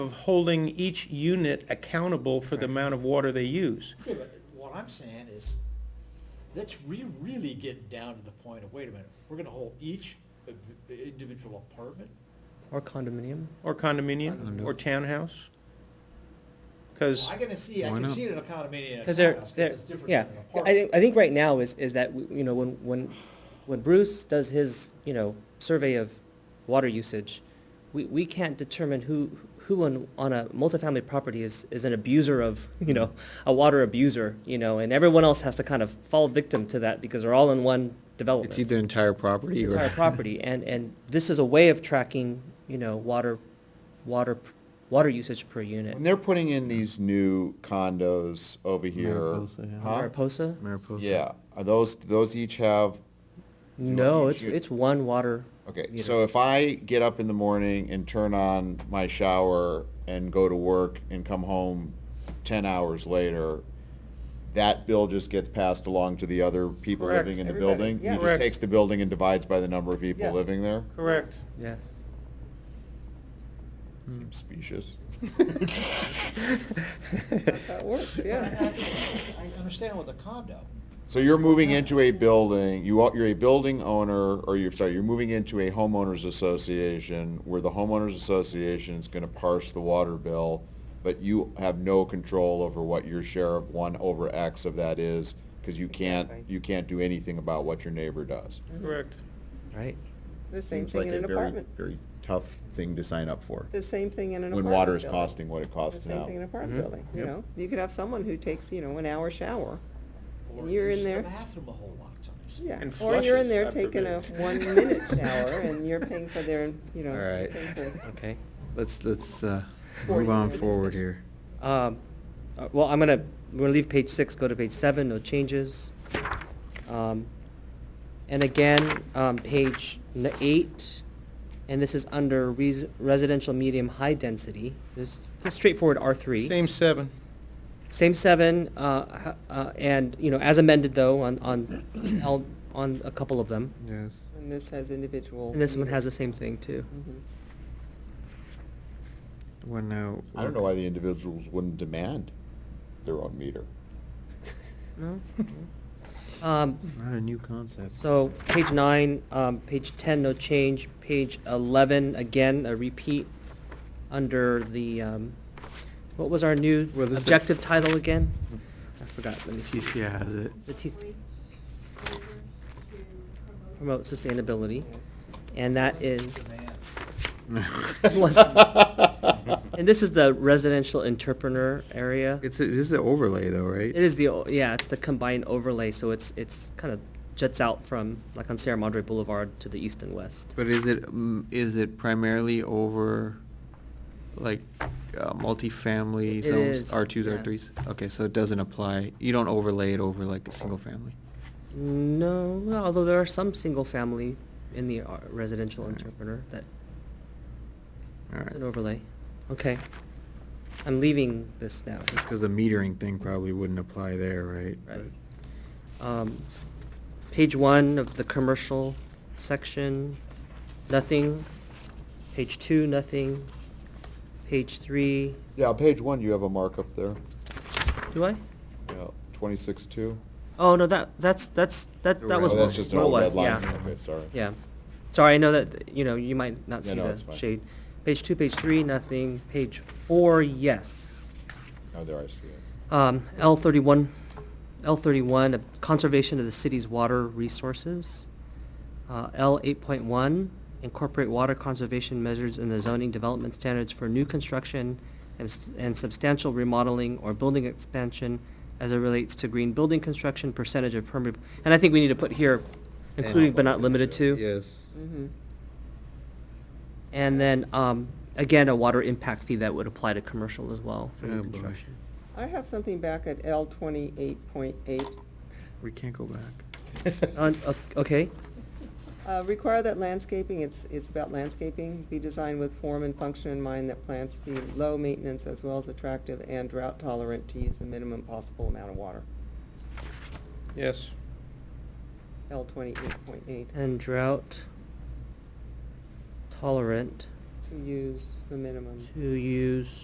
of holding each unit accountable for the amount of water they use. Okay, but what I'm saying is, let's re, really get down to the point of, wait a minute, we're gonna hold each of the individual apartment? Or condominium? Or condominium, or townhouse? Because, I can see, I Why can not? see it in a condominium and a Because they're, townhouse, 'cause they're, it's different yeah. than an I apartment. think, I think right now is, is that, you know, when, when, when Bruce does his, you know, survey of water usage, we, we can't determine who, who on, on a multifamily property is, is an abuser of, you know, a water abuser, you know, and everyone else has to kind of fall victim to that because they're all in one development. It's either entire property or. entire property, and, and this is a way of tracking, you know, water, water, water usage per unit. When they're putting in these new condos over here, Mariposa, yeah. huh? Mariposa? Mariposa. Yeah, are those, those each have, you No, want it's, each u- it's one water. okay, meter. so if I get up in the morning and turn on my shower and go to work and come home ten hours later, that bill just gets passed along to the other people Correct, living in the everybody, building? yeah. He just Correct. takes the building and divides by the number of people Yes. living there? correct. Yes. Seems specious. That's how it works, But I- I just- I understand with a condo, So you're moving into a building, you are, you're a building owner, or you're, sorry, you're moving into a homeowners association where the homeowners association is gonna parse the water bill, but you have no control over what your share of one over X of that is, because you can't, Exactly. you can't do anything about what your neighbor does. Correct. Right. The same thing in an apartment. Very tough thing to sign up for, The same thing in an when apartment. water is building. costing what it The costs same now. thing in an apartment Mhm. building, you Yep. know? You could have someone who takes, you know, an hour shower. or You're in use the there. bathroom a whole lot of times. Yeah. And Or you're in flushes, there God taking a forbid. one-minute shower and you're paying for their, you know. All right. paying for- Okay. Let's, let's, uh, Forty move on minutes. forward here. Um, uh, well, I'm gonna, we're gonna leave page six, go to page seven, no changes. Um, and again, um, page n- eight, and this is under res- residential medium high density. This, this straightforward R three. Same seven. Same seven, uh, h- uh, and, you know, as amended though, on, on, L- on a couple of them. Yes. And this has individual. And this one has the meters. same thing too. Mhm. Well, now. I don't know why the individuals wouldn't demand their own meter. No? Um, Not a new concept. so, page nine, um, page ten, no change, page eleven, again, a repeat, under the, um, what was our new Well, this is- objective title again? I forgot, let me see. TCI has it. The T, Over to promote promote sustainability, and that is. And this is the residential entrepreneur area. It's, a- this is an overlay though, right? It is the, o- yeah, it's the combined overlay, so it's, it's kind of jets out from, like on Sierra Madre Boulevard to the east and west. But is it, mm, is it primarily over, like, uh, multifamily It zones, is, R twos, yeah. R threes? Okay, so it doesn't apply, you don't overlay it over like a single family? No, well, although there are some single-family in the uh, residential Alright. entrepreneur that, All it's an right. overlay. Okay. I'm leaving this now. That's because the metering thing probably wouldn't apply there, right? Right. But- Um, Page one of the commercial section, nothing. Page two, nothing. Page three, Yeah, page one, you have a markup there. do I? Yeah, twenty-six two. Oh, no, that, that's, that's, that, that was Oh, what that's just an what it old red was, line. yeah. Okay, sorry. Yeah. Sorry, I know that, you know, you might not Yeah, see no, it's the fine. shade. Page two, page three, nothing. Page four, yes. Oh, there I see it. Um, L thirty-one, L thirty-one, conservation of the city's water resources. Uh, L eight point one, incorporate water conservation measures in the zoning development standards for new construction and s- and substantial remodeling or building expansion as it relates to green building construction, percentage of permeable. And I think we need to put here, And- including but not limited to. Yes. Mhm. And then, um, again, a water impact fee that would apply to commercial as well for Oh, new boy. construction. I have something back at L twenty-eight point eight. We can't go back. Uh, o- okay, Uh, require that landscaping, it's, it's about landscaping, be designed with form and function in mind, that plants be low maintenance as well as attractive and drought tolerant to use the minimum possible amount of water. Yes. L twenty-eight point eight, and drought tolerant to use the minimum. to use